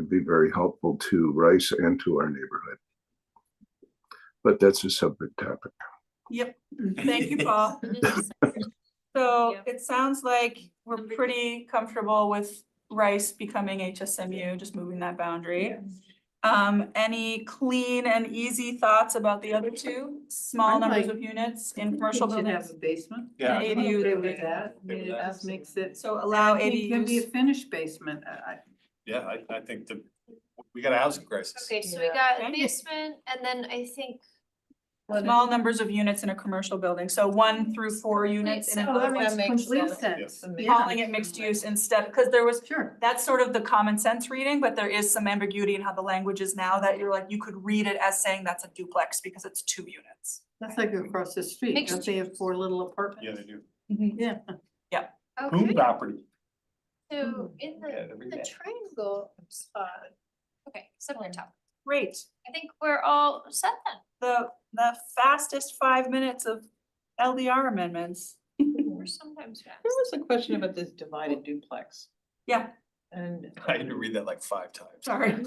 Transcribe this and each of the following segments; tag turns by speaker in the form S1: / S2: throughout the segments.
S1: be very helpful to Rice and to our neighborhood. But that's a separate topic.
S2: Yep, thank you, Paul. So
S3: Thank
S2: it sounds like we're pretty comfortable with Rice becoming HSMU, just moving that boundary. Um, any clean and easy thoughts about the other two, small
S4: I'd
S2: numbers
S4: like-
S2: of units in commercial
S4: It should have
S2: buildings?
S4: a basement.
S2: Yeah.
S4: I'm
S2: ADU.
S4: okay with that, I mean,
S5: Okay
S4: it
S5: with that.
S4: just makes it.
S2: So
S3: Oh,
S2: allow
S4: It can be a
S2: ADUs,
S4: finished basement, I,
S5: Yeah, I, I think the, we got a housing crisis.
S3: Okay, so we
S4: Yeah.
S3: got
S2: Okay.
S3: a basement and then I think.
S2: small numbers of units in a commercial building, so one through four units in
S6: Oh,
S3: so
S2: a
S3: that makes
S4: complete
S2: sense.
S4: sense, yeah,
S2: calling it mixed use instead, because there was
S4: sure.
S2: that's sort of the common sense reading, but there is some ambiguity in how the language is now that you're like, you could read it as saying that's a duplex because it's two units.
S4: That's like across the street,
S3: Mixed
S4: don't they have four little apartments?
S5: Yeah, they do.
S4: Yeah.
S5: Boom
S3: Okay,
S5: property.
S3: so
S4: Hmm.
S3: in the,
S5: Yeah, every
S3: the
S5: day.
S3: triangle spot. Okay, separate topic.
S2: Great,
S3: I think we're all set then.
S2: the, the fastest five minutes of LDR amendments.
S3: We're sometimes fast.
S6: There was a question about this divided duplex
S2: Yeah,
S6: and
S5: I had to read that like five times.
S2: sorry.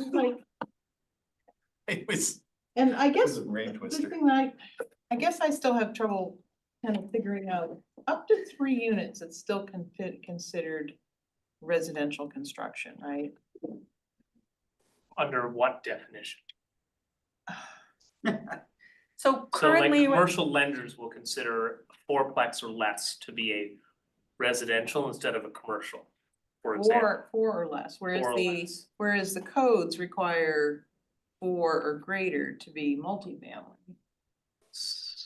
S5: It was,
S6: and I
S5: it
S6: guess
S5: was a brain
S6: the
S5: twister.
S6: thing that I, I guess I still have trouble kind of figuring out, up to three units, it's still con- considered residential construction, right?
S7: under what definition?
S2: So
S7: So like
S2: currently, we're-
S7: commercial lenders will consider a fourplex or less to be a residential instead of a commercial, for example.
S6: Four, four or less, whereas
S7: four or
S6: the,
S7: less.
S6: whereas the codes require four or greater to be multifamily.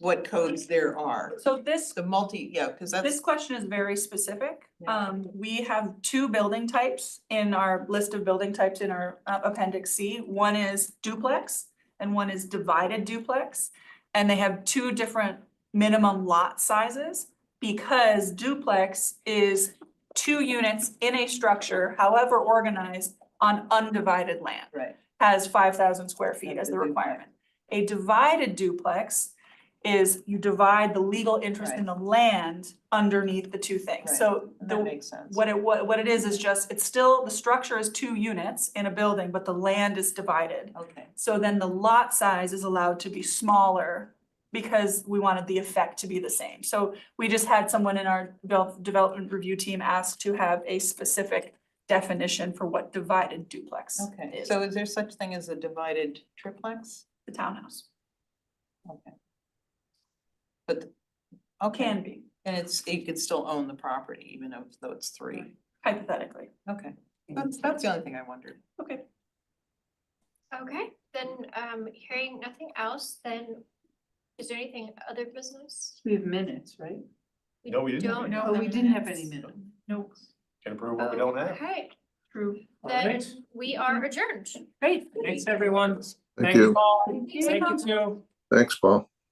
S6: What codes there are,
S2: so this,
S6: the multi, yeah, cause that's.
S2: this question is very specific.
S6: Yeah.
S2: Um, we have two building types in our list of building types in our uh, appendix C. One is duplex and one is divided duplex. And they have two different minimum lot sizes because duplex is two units in a structure, however organized, on undivided land.
S6: Right.
S2: has five thousand square feet
S6: That's
S2: as
S6: a
S2: the
S6: duplex.
S2: requirement. A divided duplex is you divide the legal interest in the land underneath the two things.
S6: Right.
S2: So
S6: That
S2: the,
S6: makes sense.
S2: what it, what, what it is, is just, it's still, the structure is two units in a building, but the land is divided.
S6: Okay,
S2: So then the lot size is allowed to be smaller because we wanted the effect to be the same. So we just had someone in our devel- development review team ask to have a specific definition for what divided duplex
S6: okay.
S2: is,
S6: So is there such thing as a divided triplex?
S2: the townhouse.
S6: Okay. But, the- okay,
S2: Can be,
S6: and it's, you could still own the property even if- though it's three.
S2: hypothetically.
S6: Okay, that's, that's the only thing I wondered.
S2: Okay.
S3: Okay, then um hearing nothing else, then is there anything other business?
S4: We have minutes, right?
S5: No, we didn't.
S3: Don't
S5: No.
S3: know.
S4: Oh,
S3: the
S4: we didn't have any
S3: minutes.
S4: minutes.
S2: Nope.
S5: Can approve what we
S3: Oh.
S5: don't have.
S3: Okay,
S2: True.
S3: then
S7: Alright.
S3: we are adjourned.
S2: Great.
S7: Thanks, everyone.
S1: Thank
S7: Thanks,
S1: you.
S7: Paul. Thank
S3: Thank
S7: you, too.
S1: Thanks, Paul.